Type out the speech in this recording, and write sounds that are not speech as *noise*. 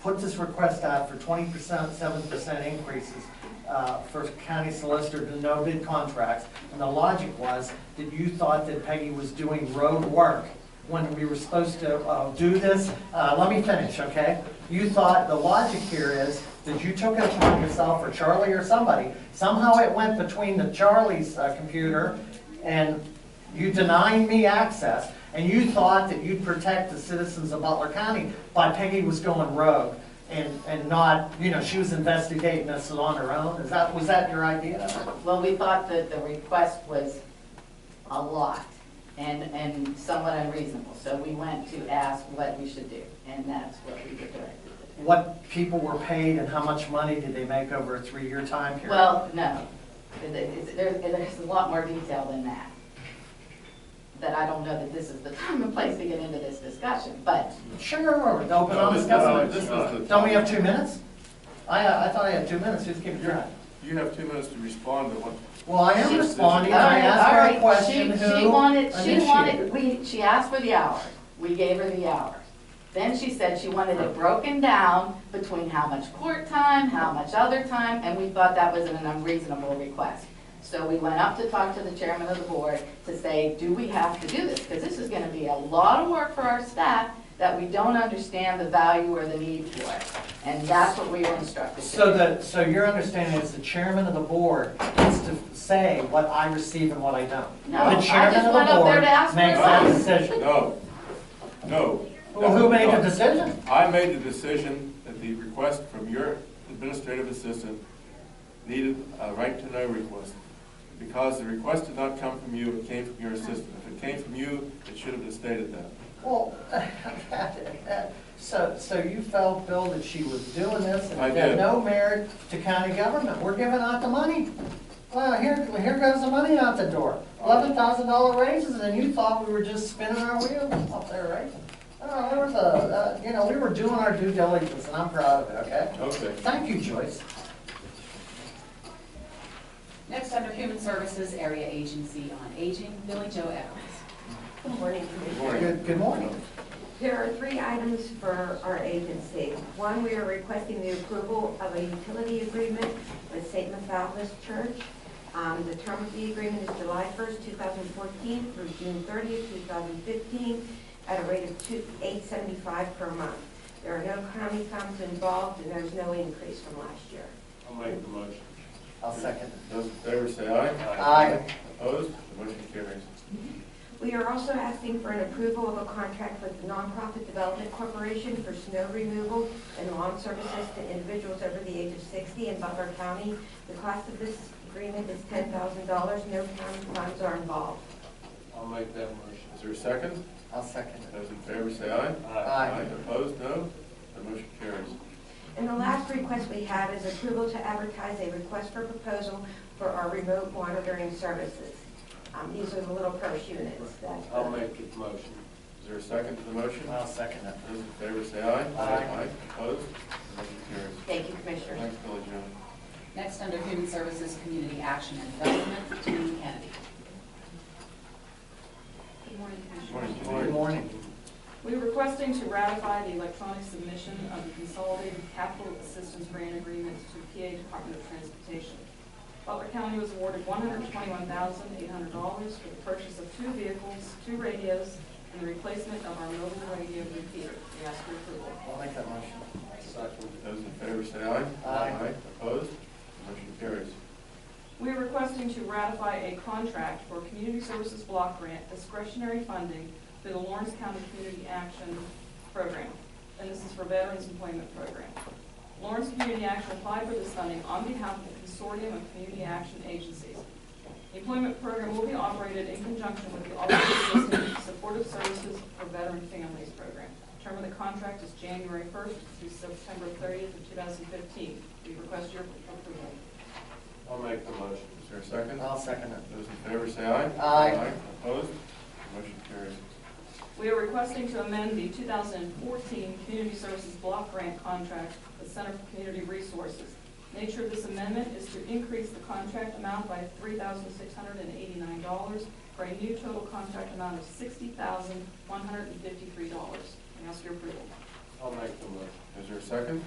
put this request out for twenty percent, seven percent increases uh, for county solicitor to no bid contracts. And the logic was that you thought that Peggy was doing road work when we were supposed to uh, do this. Uh, Let me finish, okay? You thought, the logic here is that you took it upon yourself or Charlie or somebody. Somehow it went between the Charlie's uh, computer and you denying me access, and you thought that you'd protect the citizens of Butler County by Peggy was going rogue and, and not, you know, she was investigating this on her own? Is that, was that your idea? Well, we thought that the request was a lot and, and somewhat unreasonable. So we went to ask what we should do, and that's what we were directed to do. What people were paid and how much money did they make over a three-year time period? Well, no, It- it's- there's, there's a lot more detail than that. That I don't know that this is the time and place to get into this discussion, but Sure, the open No, honest this- no, government. this was the- Don't we have two minutes? I, uh, I thought I had two minutes, just keep it track. You have two minutes to respond to what, Well, I am She's- responding, All I right, asked all her right. a question, She- who She wanted, she initiated wanted, we, she asked for the hours, we gave her the hours. Then she said she wanted it broken down between how much court time, how much other time, and we thought that was an unreasonable request. So we went up to talk to the chairman of the board to say, do we have to do this? Because this is gonna be a lot of work for our staff that we don't understand the value or the need for. And that's what we were instructed to do. So the, so your understanding is the chairman of the board gets to say what I receive and what I don't? No, I The chairman just of went the up there board to ask for makes that advice. decision. no, no. Well, who made the No. decision? I made the decision that the request from your administrative assistant needed a right-to-know request, because the request did not come from you, it came from your assistant. If it came from you, it should have stated that. Well, *laughs* so, so you felt, Bill, that she was doing this and I it had did. no merit to county government. We're giving out the money. Well, here, here goes the money out the door. Eleven thousand dollar raises and you thought we were just spinning our wheels up there, right? Oh, there was a, uh, you know, we were doing our due diligence and I'm proud of it, okay? Okay. Thank you, Joyce. Next, under Human Services Area Agency on Aging, Billy Joe Evans. Good morning. Good morning. Good, good morning. There are three items for our agency. One, we are requesting the approval of a utility agreement with St. Methodist Church. Um, The term of the agreement is July 1st, 2014 through June 30th, 2015, at a rate of two- $8.75 per month. There are no county funds involved, and there's no increase from last year. I'll make the motion. I'll second. Those in favor say aye. Aye. Opposed? The motion carries. We are also asking for an approval of a contract with the Nonprofit Development Corporation for snow removal and lawn services to individuals over the age of 60 in Butler County. The cost of this agreement is $10,000. No county funds are involved. I'll make that motion. Is there a second? I'll second it. Those in favor say aye. Aye. Opposed? No? The motion carries. And the last request we have is approval to advertise a request for proposal for our remote monitoring services. Um, These are the little purse units that... I'll make the motion. Is there a second to the motion? I'll second it. Those in favor say aye. Aye. Opposed? Motion carries. Thank you, Commissioners. Thanks, Billy Joe. Next, under Human Services Community Action and Development, Janine Kennedy. Good morning, Commissioner. Morning, Good Janine. morning. We're requesting to ratify the electronic submission of the Consolidated Capital Assistance Grant Agreement to PA Department of Transportation. Butler County was awarded one hundred twenty-one thousand eight hundred dollars for the purchase of two vehicles, two radios, and the replacement of our mobile radio repeater. We ask for approval. I'll make that motion. Second. Those in favor say aye. Aye. Opposed? Motion carries. We are requesting to ratify a contract for Community Services Block Grant discretionary funding through the Lawrence County Community Action Program. And this is for Veterans Employment Program. Lawrence Community Action applied for this funding on behalf of the consortium of community action agencies. The employment program will be operated in conjunction with the Office of Assistant Supportive Services for Veteran Families Program. Term of the contract is January 1st through September 30th of 2015. We request your approval. I'll make the motion. Is there a second? I'll second it. Those in favor say aye. Aye. Opposed? Motion carries. We are requesting to amend the 2014 Community Services Block Grant Contract with Center for Community Resources. Nature of this amendment is to increase the contract amount by $3,689 for a new total contract amount of $60,153. We ask your approval. I'll make the motion. Is there a second?